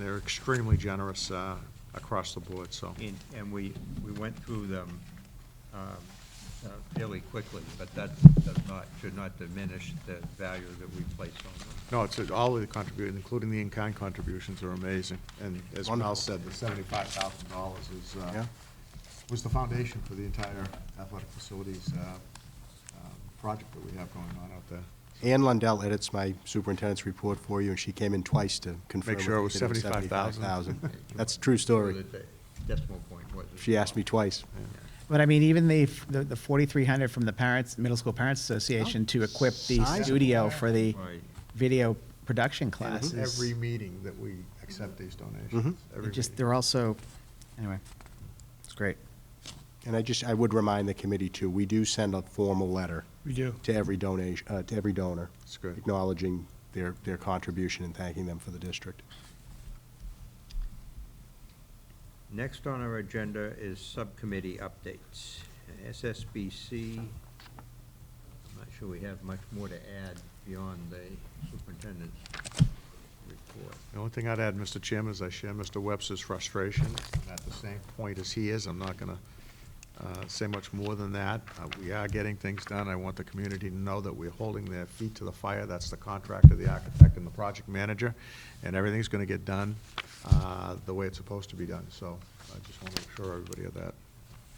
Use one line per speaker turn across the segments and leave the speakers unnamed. They're extremely generous uh, across the board, so.
And, and we, we went through them um, uh, fairly quickly, but that does not, should not diminish the value that we place on them.
No, it's, all of the contributions, including the in-kind contributions are amazing. And as Mel said, the seventy-five thousand dollars is, uh,
Yeah.
was the foundation for the entire athletic facilities uh, uh, project that we have going on out there.
Ann Lundell edits my superintendent's report for you, and she came in twice to confirm.
Make sure it
if
was
did
$75,000.
$75,000. That's a true story.
That the Decimal point was.
She asked me twice.
But I mean, even the, f- the the 4,300 from the parents, Middle School Parents Association
Oh,
to equip the
Size.
studio for the
Right.
video production
And it's
classes.
every meeting that we accept these donations.
Mhm.
They
Every
Mm-hmm. just,
meeting.
they're also, anyway, it's great.
And I just, I would remind the committee too, we do send a formal letter
We do.
to every donation, uh, to every donor.
That's good.
Acknowledging their, their contribution and thanking them for the district.
Next on our agenda is subcommittee updates. SSBC, I'm not sure we have much more to add beyond the superintendent's report.
The only thing I'd add, Mr. Chairman, is I share Mr. Webster's frustration. and At the same point as he is, I'm not going to say much more than that. Uh, We are getting things done. I want the community to know that we're holding their feet to the fire. That's the contractor, the architect, and the project manager, and everything's going to get done uh, the way it's supposed to be done. So I just want to assure everybody of that.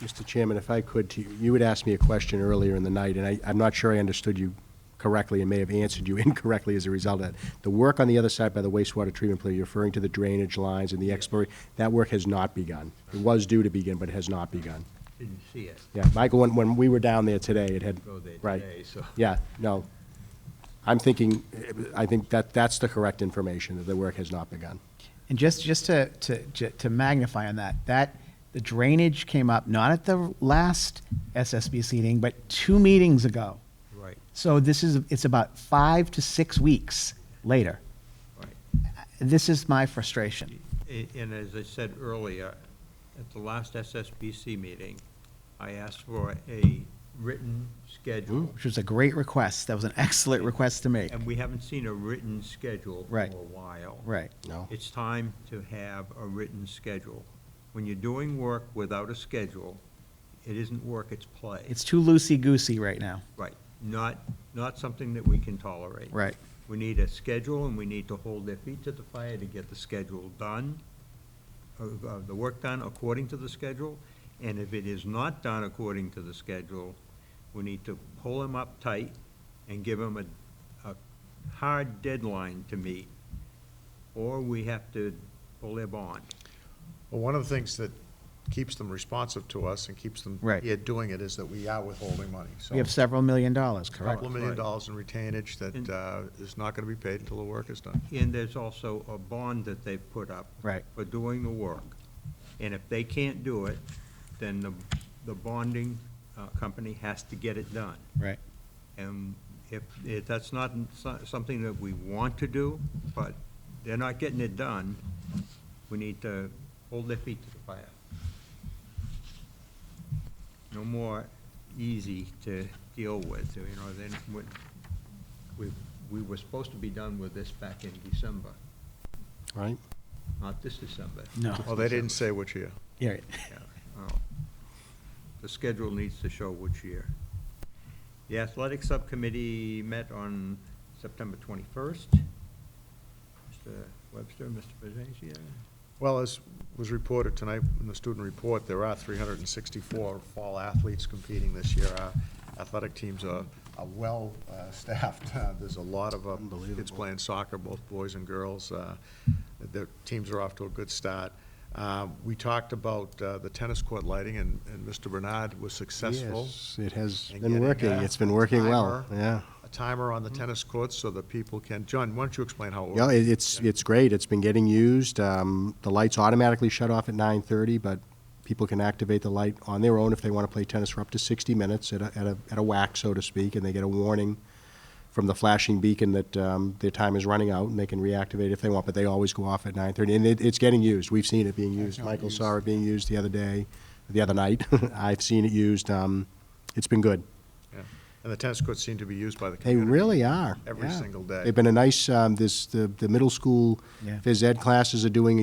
Mr. Chairman, if I could, to you you had asked me a question earlier in the night, and I, I'm not sure I understood you correctly and may have answered you incorrectly as a result of that. The work on the other side by the wastewater treatment plant, you're referring to the drainage lines and the exploration, that work has not begun. It was due to begin, but it has not begun.
Didn't see it.
Yeah, Michael, when, when we were down there today, it had,
Go there
right.
today, so-
Yeah, no. I'm thinking, I think that, that's the correct information, that the work has not begun.
And just, just to, to, ju- to magnify on that, that, the drainage came up, not at the last SSBC meeting, but two meetings ago.
Right,
So this is, it's about five to six weeks later.
right.
This is my frustration.
A- And as I said earlier, at the last SSBC meeting, I asked for a written schedule.
which was a great request. That was an excellent request to make.
And we haven't seen a written schedule for a
Right.
while.
Right.
No?
It's time to have a written schedule. When you're doing work without a schedule, it isn't work, it's play.
It's too loosey-goosey right now.
Right, not, not something that we can tolerate.
Right.
We need a schedule, and we need to hold their feet to the fire to get the schedule done, of- of the work done according to the schedule, and if it is not done according to the schedule, we need to pull them up tight and give them a, a hard deadline to meet, or we have to pull their bond.
Well, one of the things that keeps them responsive to us and keeps them
Right.
here doing it is that we are withholding money, so.
We have several million dollars, correct?
Couple of million dollars in retainage that
And-
uh, is not going to be paid until the work is done.
And there's also a bond that they've put up.
Right.
For doing the work. And if they can't do it, then the, the bonding uh, company has to get it done.
Right.
And if, if that's not so- something that we want to do, but they're not getting it done, we need to hold their feet to the fire. No more easy to deal with, you know, then, when- we, we were supposed to be done with this back in December,
Right?
not this December.
No.
Well, they didn't say which year.
Yeah, right.
Yeah, oh. The schedule needs to show which year. The athletic subcommittee met on September 21st. Mr. Webster, Mr. Patricia,
Well, as was reported tonight in the student report, there are 364 fall athletes competing this year. Our athletic teams are are well uh, staffed. Uh, There's a lot of uh, kids
Unbelievable.
playing soccer, both boys and girls. Uh, The teams are off to a good start. Uh, We talked about uh, the tennis court lighting, and and Mr. Bernard was successful.
Yes, It has
and
been
getting
working.
a
It's been working well,
timer-
yeah.
A timer on the tennis courts so that people can, John, why don't you explain how it works?
Yeah, it- it's, it's great. It's been getting used. Um, The lights automatically shut off at 9:30, but people can activate the light on their own if they want to play tennis for up to 60 minutes at a, at a, at a whack, so to speak, and they get a warning from the flashing beacon that um, their time is running out, and they can reactivate if they want, but they always go off at 9:30. And it, it's getting used. We've seen it being used.
know,
Michael
used.
saw it being used the other day, the other night. I've seen it used. Um, It's been good.
Yeah. And the tennis courts seem to be used by the
They
community.
really are.
Every
yeah.
single day.
They've been a nice, um, this, the, the middle school
Yeah.
phys ed classes are doing a